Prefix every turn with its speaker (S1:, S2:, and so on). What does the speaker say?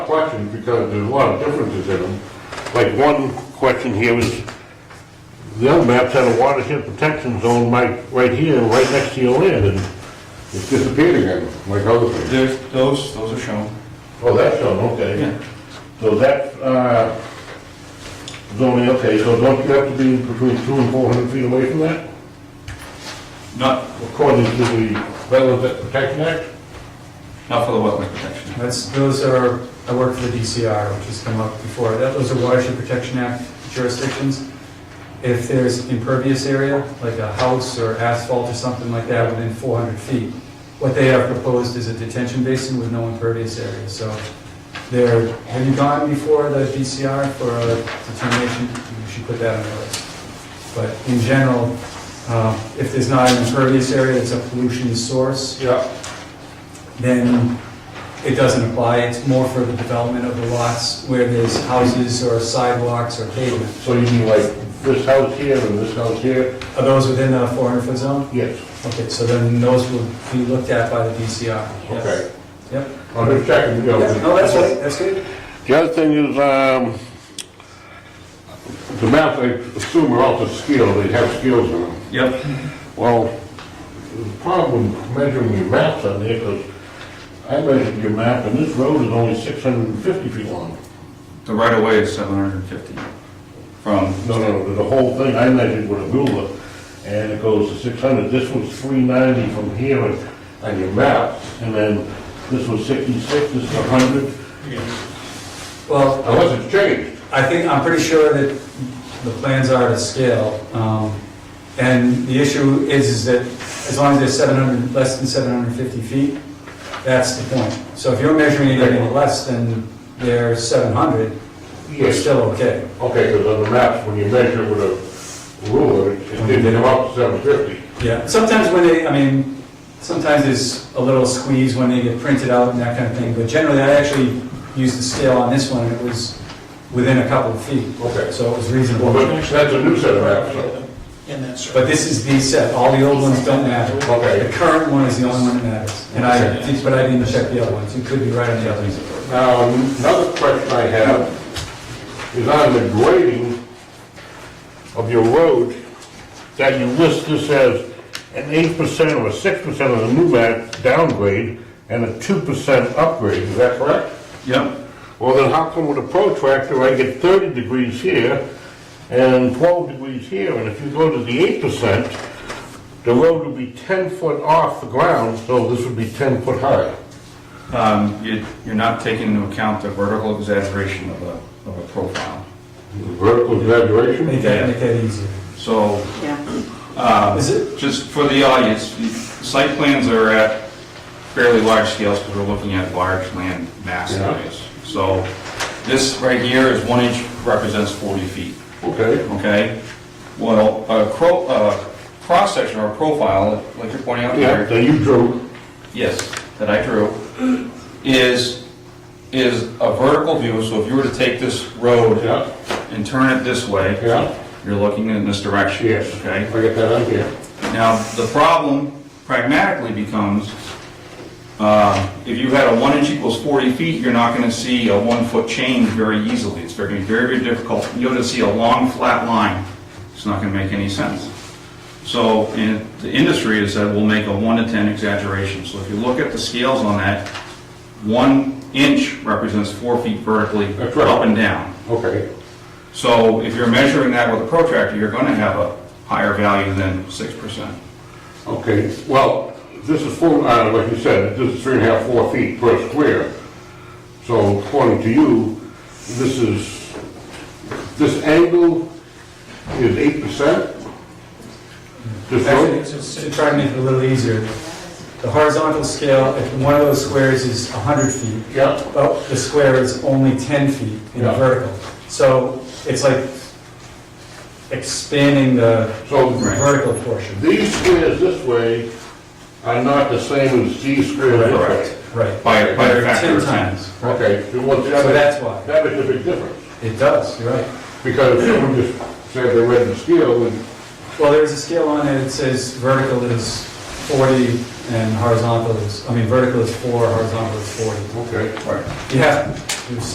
S1: questions because there's a lot of differences in them. Like one question here was, the other map had a watershed protection zone right, right here, right next to your land, and it's disappeared again, like other things.
S2: There's, those, those are shown.
S1: Oh, that's shown, okay.
S2: Yeah.
S1: So that, uh, zoning, okay, so don't you have to be between two and four hundred feet away from that?
S2: Not,
S1: According to the Wetlands Protection Act?
S2: not for the wetland protection.
S3: That's, those are, I work for the DCR, which has come up before, that, those are Watershed Protection Act jurisdictions. If there's impervious area, like a house or asphalt or something like that within four hundred feet, what they have proposed is a detention basin with no impervious area, so there, have you gone before the DCR for a determination? You should put that on your list. But in general, uh, if there's not an impervious area, it's a pollution source,
S1: Yeah.
S3: then it doesn't apply. It's more for the development of the lots where there's houses or sidewalks or pavement.
S1: So you mean like this house here and this house here?
S3: Are those within the 400-foot zone?
S1: Yes.
S3: Okay, so then those will be looked at by the DCR. yes.
S1: Okay.
S3: Yep.
S1: I'm just checking, you know.
S3: No, that's right, that's good.
S1: The other thing is, um, the maps, I assume are also scaled, they have scales in them.
S2: Yep.
S1: Well, the problem measuring your maps on there, because I measured your map, and this road is only 650 feet long.
S2: The right of way is seven hundred and fifty from,
S1: No, no, the whole thing, I measured with a ruler, and it goes to 600. This was 390 from here on- on your map, and then this was 66, this is 100,
S3: Well,
S1: unless it's changed.
S3: I think, I'm pretty sure that the plans are to scale. um, And the issue is, is that as long as they're 700, less than 750 feet, that's the point. So if you're measuring it any less than their 700, you're
S1: Yes.
S3: still okay.
S1: Okay, because on the maps, when you measure with a ruler, it it didn't come up to 750.
S3: Yeah, sometimes when they, I mean, sometimes there's a little squeeze when they get printed out and that kind of thing, but generally, I actually used the scale on this one, and it was within a couple of feet,
S1: Okay.
S3: so it was
S1: Well,
S3: reasonable.
S1: but that's a new set of maps, so.
S4: In that circle.
S3: But this is the set, all the old ones don't matter.
S1: Okay.
S3: The current one is the only one that matters, and I, did- but I didn't check the other ones, you could be right on the other ones.
S1: Now, another question I have is on the grading of your road, that you list this as an eight percent or a six percent of the new map downgrade and a two percent upgrade, is that correct?
S2: yep,
S1: Well, then how come with a protractor, I get thirty degrees here and twelve degrees here, and if you go to the eight percent, the road would be ten foot off the ground, so this would be ten foot high.
S2: um, you, you're not taking into account the vertical exaggeration of a, of a profile.
S1: Vertical exaggeration?
S3: Make that, make that easier.
S2: So,
S4: Yeah,
S2: um,
S3: Is it?
S2: just for the audience, the site plans are at fairly large scales because we're looking at large land mass
S1: Yeah.
S2: areas. So this right here is one inch represents forty feet.
S1: Okay.
S2: okay? Well, a cro, a cross-section or a profile, like you're pointing out
S1: Yeah,
S2: here,
S1: that you drew.
S2: yes, that I drew, is, is a vertical view, so if you were to take this road
S1: Yeah,
S2: and turn it this way,
S1: yeah.
S2: you're looking in this direction.
S1: Yes.
S2: Okay?
S1: I get that on here.
S2: Now, the problem pragmatically becomes, uh, if you had a one inch equals 40 feet, you're not going to see a one foot change very easily. It's going to be very, very difficult. You're going to see a long, flat line. It's not going to make any sense. So in the industry has said, we'll make a one to 10 exaggeration. So if you look at the scales on that, one inch represents four feet vertically
S1: That's right.
S2: up and down.
S1: Okay.
S2: So if you're measuring that with a protractor, you're going to have a higher value than 6%.
S1: Okay, well, this is four, uh, like you said, this is three and a half, four feet per square. So according to you, this is, this angle is eight percent? This
S3: Actually,
S1: road?
S3: to try to make it a little easier, the horizontal scale, if one of those squares is 100 feet,
S1: Yeah,
S3: but the square is only 10 feet in the
S1: Yeah.
S3: vertical. So it's like expanding the
S1: so
S2: Right.
S3: vertical portion.
S1: these squares this way are not the same as these squares this way.
S2: Correct.
S3: Right.
S2: By, by a
S3: They're
S2: factor of
S3: 10
S2: ten.
S3: times.
S1: Okay, so what's the
S3: So
S1: other-
S3: that's why.
S1: that makes a big difference.
S3: It does, you're right.
S1: Because if someone just said they read the scale, and
S3: Well, there's a scale on it that says vertical is 40 and horizontal is, I mean, vertical is 4, horizontal is 40.
S1: okay,
S2: Right.
S3: You have, There's